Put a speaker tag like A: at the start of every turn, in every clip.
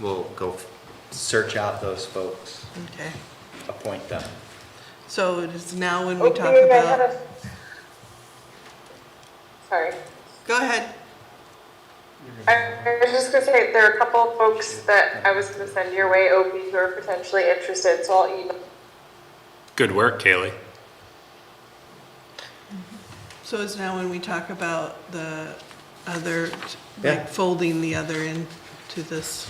A: we'll go f- search out those folks,
B: Okay,
A: appoint them.
B: so it is now when we talk
C: Okay, I had
B: about,
C: a. Sorry.
B: go ahead.
C: I I was just gonna say, there are a couple of folks that I was gonna send your way, Opie, who are potentially interested, so I'll email.
D: Good work, Kaylee.
B: So it's now when we talk about the other,
A: Yeah.
B: like folding the other into this.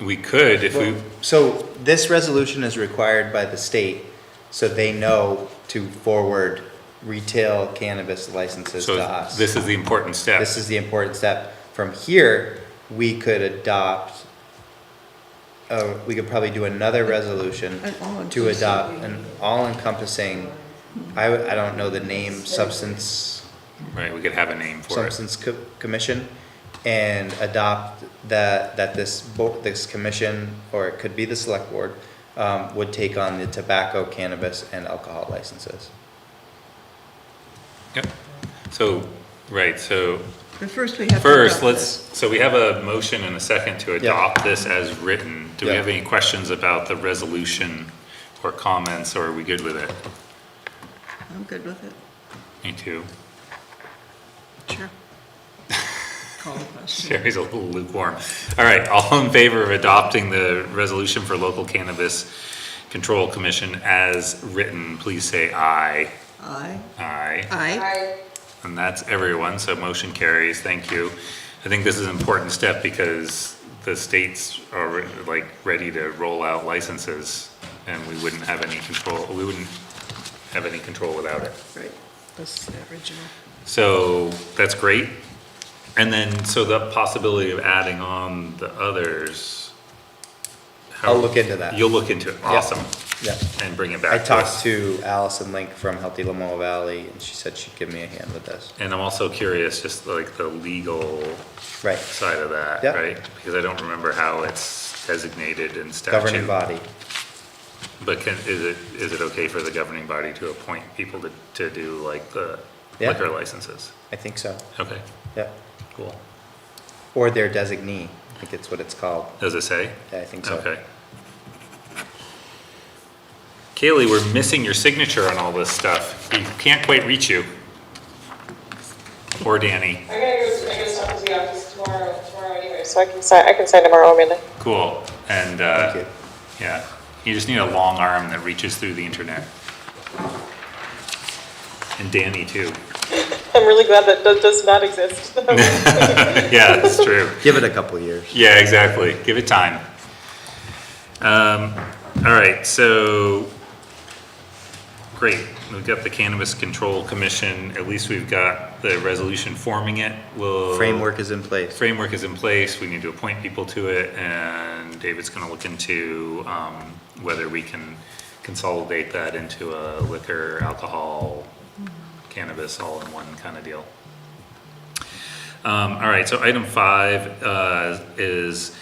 D: We could if we,
A: Well, So this resolution is required by the state, so they know to forward retail cannabis licenses to
D: so
A: us.
D: this is the important step.
A: This is the important step. From here, we could adopt, uh, we could probably do another resolution
B: An
A: to
B: all-encompassing.
A: adopt an all-encompassing, I, w- I don't know the name, substance,
D: Right, we could have a name for it.
A: substance co- commission, and adopt that, that this, bo- this commission, or it could be the select board, um, would take on the tobacco, cannabis, and alcohol licenses.
D: Yep. So, right, so
B: But first we have to.
D: first,
B: vote.
D: let's, so we have a motion and a second to adopt this as written. Do we
A: Yeah.
D: have any questions about the resolution or comments, or are we good with it?
B: I'm good with it,
D: Me too.
B: sure. Call the question.
D: Sherry's a little lukewarm. All right, all in favor of adopting the resolution for local cannabis control commission as written, please say aye.
B: Aye,
D: Aye.
B: aye,
C: I,
D: And that's everyone, so motion carries, thank you. I think this is an important step because the states are re- like ready to roll out licenses and we wouldn't have any control, we wouldn't have any control without it.
B: right, this is the original.
D: So that's great. And then, so the possibility of adding on the others. how-
A: I'll look into that.
D: You'll look into it, awesome,
A: Yeah.
D: and bring
A: I
D: it back to
A: talked
D: us.
A: to Allison Link from Healthy Lamoille Valley, and she said she'd give me a hand with this.
D: And I'm also curious, just like the legal
A: Right,
D: side of that,
A: Yeah.
D: right? Because I don't remember how it's designated in statute.
A: governing body.
D: But can, is it, is it okay for the governing body to appoint people to, to do like the
A: Yeah.
D: liquor licenses?
A: I think so,
D: Okay,
A: yeah.
D: cool.
A: Or their designee, I think it's what it's called.
D: Does it say?
A: Yeah, I think so.
D: Okay. Kaylee, we're missing your signature on all this stuff. We can't quite reach you. Or Danny.
C: I gotta go, I gotta stop to the office tomorrow, tomorrow anyway, so I can sign, I can sign tomorrow, Amanda.
D: Cool. And, uh,
A: Thank you.
D: yeah, you just need a long arm that reaches through the internet. And Danny too.
C: I'm really glad that that does not exist.
D: Yeah, that's true.
A: Give it a couple years.
D: Yeah, exactly. Give it time. Um, all right, so, great. We've got the Cannabis Control Commission. At least we've got the resolution forming it. We'll.
A: Framework is in place.
D: Framework is in place. We need to appoint people to it and David's gonna look into, um, whether we can consolidate that into a liquor, alcohol, cannabis, all in one kind of deal. Um, all right, so item five, uh, is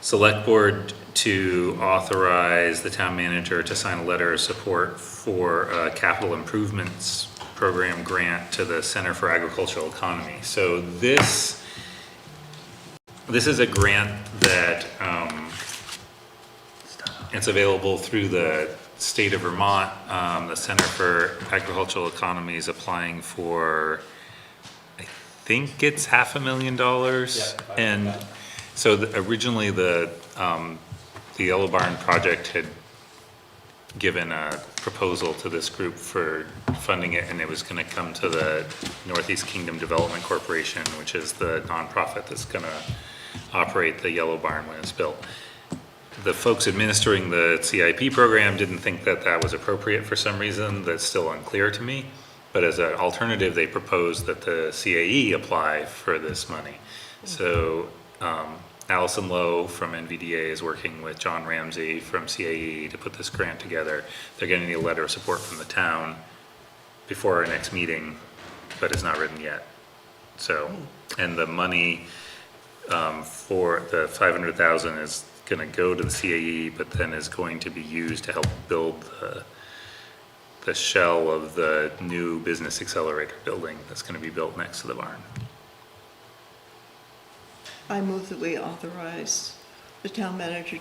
D: select board to authorize the town manager to sign a letter of support for a capital improvements program grant to the Center for Agricultural Economy. So this, this is a grant that, um, it's available through the state of Vermont. Um, the Center for Agricultural Economy is applying for, I think it's half a million dollars. And so the- originally the, um, the Yellow Barn project had given a proposal to this group for funding it, and it was gonna come to the Northeast Kingdom Development Corporation, which is the nonprofit that's gonna operate the Yellow Barn when it's built. The folks administering the CIP program didn't think that that was appropriate for some reason, that's still unclear to me. But as an alternative, they proposed that the CAE apply for this money. So um, Allison Lowe from NVDA is working with John Ramsey from CAE to put this grant together. They're gonna need a letter of support from the town before our next meeting, but it's not written yet. So, and the money um, for the five hundred thousand is gonna go to the CAE, but then is going to be used to help build the the shell of the new business accelerator building that's gonna be built next to the barn.
B: I move that we authorize the town manager